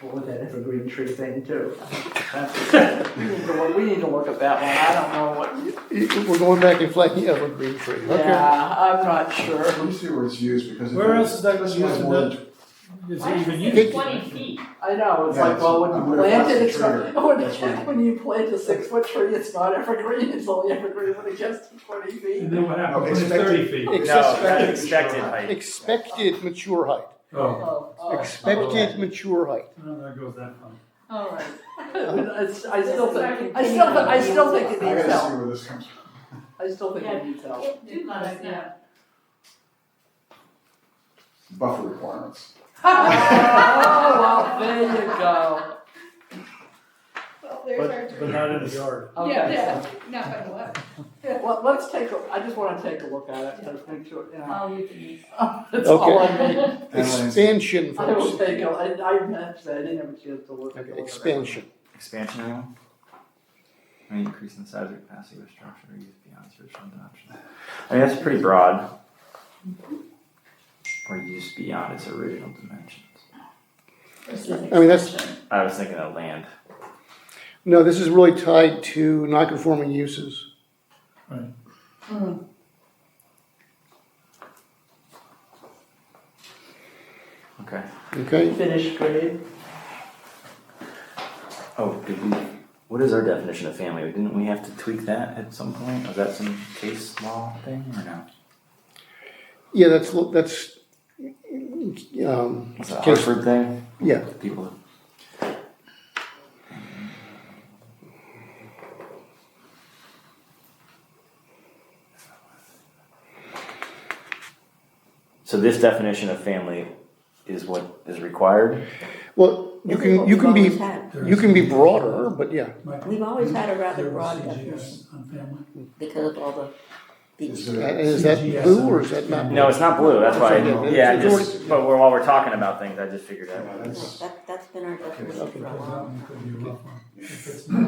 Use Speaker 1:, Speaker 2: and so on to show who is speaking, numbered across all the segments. Speaker 1: Boy, that evergreen tree thing too. That's- We need to look, we need to look at that one, I don't know what,
Speaker 2: We're going back and flanking evergreen tree, okay.
Speaker 1: yeah, I'm not sure.
Speaker 3: Let me see where it's used, because. if
Speaker 4: Where
Speaker 3: it-
Speaker 4: else is that
Speaker 3: especially if it's
Speaker 4: used
Speaker 3: more
Speaker 4: in
Speaker 3: than-
Speaker 4: Is
Speaker 5: Why
Speaker 4: it
Speaker 5: is
Speaker 4: even
Speaker 5: it
Speaker 4: used?
Speaker 5: Twenty feet.
Speaker 1: I know, it's
Speaker 3: Yeah,
Speaker 1: like,
Speaker 3: it's-
Speaker 1: well, when
Speaker 3: I'm
Speaker 1: you
Speaker 3: gonna
Speaker 1: plant it,
Speaker 3: plant a
Speaker 1: it's not,
Speaker 3: tree.
Speaker 1: when,
Speaker 3: That's right.
Speaker 1: when you plant a six foot tree, it's not evergreen, it's only evergreen when it gets to twenty
Speaker 4: And
Speaker 1: feet.
Speaker 4: then what happens when it's
Speaker 3: Expected.
Speaker 4: thirty feet?
Speaker 2: It's
Speaker 6: No,
Speaker 2: expected-
Speaker 6: expected height.
Speaker 2: Expected mature height,
Speaker 4: Oh,
Speaker 1: Oh, oh,
Speaker 2: expected mature height.
Speaker 4: no, that goes that far.
Speaker 1: all right. It's- I still
Speaker 5: This is
Speaker 1: think,
Speaker 5: our
Speaker 1: I still, thi- I still think
Speaker 5: continuing
Speaker 1: it
Speaker 3: I
Speaker 1: needs
Speaker 3: gotta see
Speaker 1: help,
Speaker 3: where this comes from.
Speaker 1: I still think it needs help.
Speaker 5: Too close now.
Speaker 3: Buffer requirements.
Speaker 1: Oh, well, there you go.
Speaker 7: Well, there's our
Speaker 4: But, but not in the yard.
Speaker 1: Okay,
Speaker 7: Not by the way.
Speaker 1: well, let's take, a. I just wanna take a look at it, to make sure, you know.
Speaker 5: Oh, you can use.
Speaker 1: That's all I
Speaker 2: Okay.
Speaker 1: need.
Speaker 3: And landscape.
Speaker 2: Expansion,
Speaker 1: I will
Speaker 2: folks,
Speaker 1: take a, I, I meant that, I didn't have a chance to look.
Speaker 2: Okay,
Speaker 1: look at it.
Speaker 2: expansion.
Speaker 6: Expansion rule? May increase in the size or capacity of a structure or use beyond search and adoption. I mean, that's pretty broad. Or use beyond its original dimensions.
Speaker 2: I mean, that's-
Speaker 6: I was thinking of land.
Speaker 2: No, this is really tied to non-conforming uses.
Speaker 6: Okay.
Speaker 2: Okay,
Speaker 1: Finished grade,
Speaker 6: Oh, did we, what is our definition of family? Didn't we have to tweak that at some point? Was that some case law thing or no?
Speaker 2: yeah, that's, lo- that's, um,
Speaker 6: Was it a
Speaker 2: Case-
Speaker 6: Hartford thing?
Speaker 2: yeah,
Speaker 6: People. So this definition of family is what is required?
Speaker 2: well, you
Speaker 8: This is
Speaker 2: can,
Speaker 8: what
Speaker 2: you
Speaker 8: we've
Speaker 2: can
Speaker 8: always
Speaker 2: be,
Speaker 8: had.
Speaker 2: you can be broader, but yeah,
Speaker 8: We've always had a rather
Speaker 4: There was
Speaker 8: broad definition
Speaker 4: CGS on family.
Speaker 8: because of all the,
Speaker 3: Is
Speaker 8: the,
Speaker 2: Uh,
Speaker 3: there-
Speaker 2: is that
Speaker 4: CGS
Speaker 2: blue or is that
Speaker 4: and-
Speaker 2: not?
Speaker 6: No, it's not blue, that's why,
Speaker 2: Okay.
Speaker 6: yeah, I just, but we're- while we're talking about things, I just figured
Speaker 3: yeah,
Speaker 6: out.
Speaker 3: That's,
Speaker 8: that, that's been our definition
Speaker 2: Okay.
Speaker 8: for a
Speaker 4: That
Speaker 8: while.
Speaker 4: one could be a rough one. If it's not,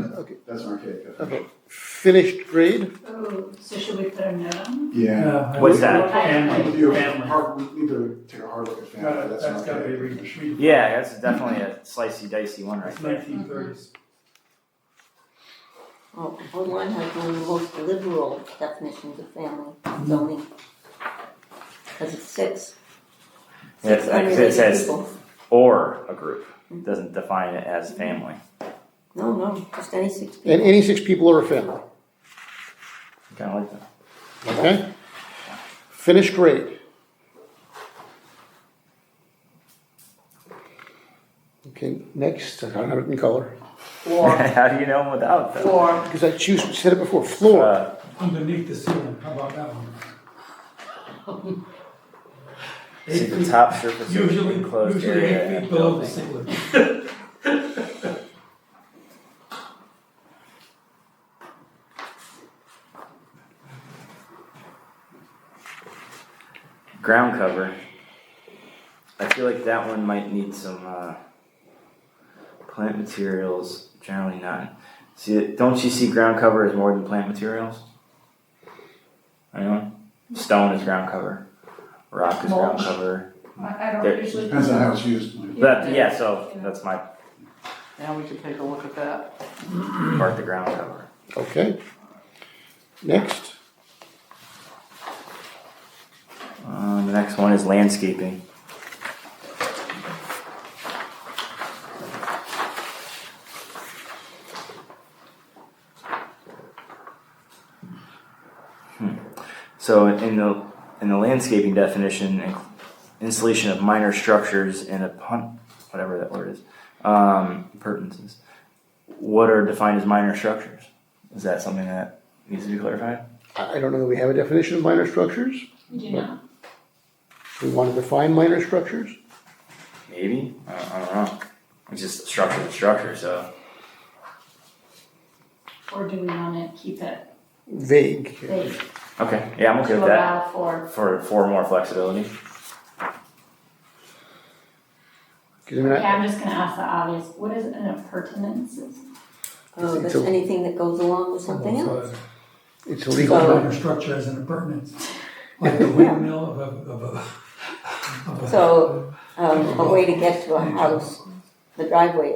Speaker 3: that's an archaic. definition.
Speaker 2: Okay, finished grade,
Speaker 5: Oh, so should we put a note on?
Speaker 3: Yeah.
Speaker 4: uh,
Speaker 6: What's
Speaker 4: I-
Speaker 6: that?
Speaker 3: We do
Speaker 4: Family,
Speaker 3: a
Speaker 4: family.
Speaker 3: hard- we need to take a hard look at
Speaker 4: Gotta-
Speaker 3: family, that's an
Speaker 4: That's gotta be
Speaker 3: archaic
Speaker 4: re-
Speaker 3: definition.
Speaker 4: re-
Speaker 6: Yeah, that's definitely a slicey dicey one right
Speaker 4: It's
Speaker 6: there.
Speaker 4: nineteen thirties.
Speaker 8: Oh, Online has one of the most liberal definitions of family zoning. Because it's six.
Speaker 6: Yeah,
Speaker 8: Six
Speaker 6: it's- it
Speaker 8: unrelated
Speaker 6: says-
Speaker 8: people.
Speaker 6: Or a group, doesn't define it as family.
Speaker 8: No, no, just any six people.
Speaker 2: and any six people are a family,
Speaker 6: Kinda like that.
Speaker 2: okay? Finished grade. Okay, next, I don't have it in color,
Speaker 1: floor,
Speaker 6: How do you know them without them?
Speaker 1: floor,
Speaker 2: because I choose, said it before, floor,
Speaker 6: Uh,
Speaker 4: Underneath the ceiling, how about that one?
Speaker 6: see
Speaker 4: Eight
Speaker 6: the
Speaker 4: feet,
Speaker 6: top surface of
Speaker 4: usually,
Speaker 6: enclosed
Speaker 4: usually
Speaker 6: area.
Speaker 4: eight
Speaker 6: and
Speaker 4: feet below the
Speaker 6: building.
Speaker 4: ceiling.
Speaker 6: Ground cover. I feel like that one might need some uh, plant materials. Generally not. See, don't you see ground cover as more than plant materials? Anyone? Stone is ground cover. Rock is ground
Speaker 5: Mulch.
Speaker 6: cover.
Speaker 7: I, I
Speaker 6: There-
Speaker 7: don't usually.
Speaker 3: Depends on how it's used.
Speaker 6: That yeah. So that's my
Speaker 1: now we can take a look at that.
Speaker 6: part. The ground cover.
Speaker 2: okay? Next,
Speaker 6: Uh, the next one is landscaping. Hmm. So in the in the landscaping definition, in- installation of minor structures and a pun, whatever that word is, um, appurtenances. What are defined as minor structures? Is that something that needs to be clarified?
Speaker 2: I I don't know that we have a definition of minor structures.
Speaker 5: You know,
Speaker 2: We want to define minor structures?
Speaker 6: Maybe I don't, I don't know. It's just structure to structure, so.
Speaker 5: or do we want to keep it
Speaker 2: Vague.
Speaker 5: vague
Speaker 6: Okay, yeah, I'm okay
Speaker 5: to
Speaker 6: with that.
Speaker 5: allow for?
Speaker 6: For for more flexibility.
Speaker 2: 'Cause I mean,
Speaker 5: Okay,
Speaker 2: I-
Speaker 5: I'm just gonna ask the obvious, what is an appurtenance?
Speaker 8: Oh, that's
Speaker 2: It's a-
Speaker 8: anything that goes along with
Speaker 4: Oh,
Speaker 8: something else.
Speaker 2: it's a
Speaker 4: It's
Speaker 2: legal term.
Speaker 4: got a structure as an appurtenance, like the windmill of a, of a, of a.
Speaker 8: So, um, a way to get to a house the driveway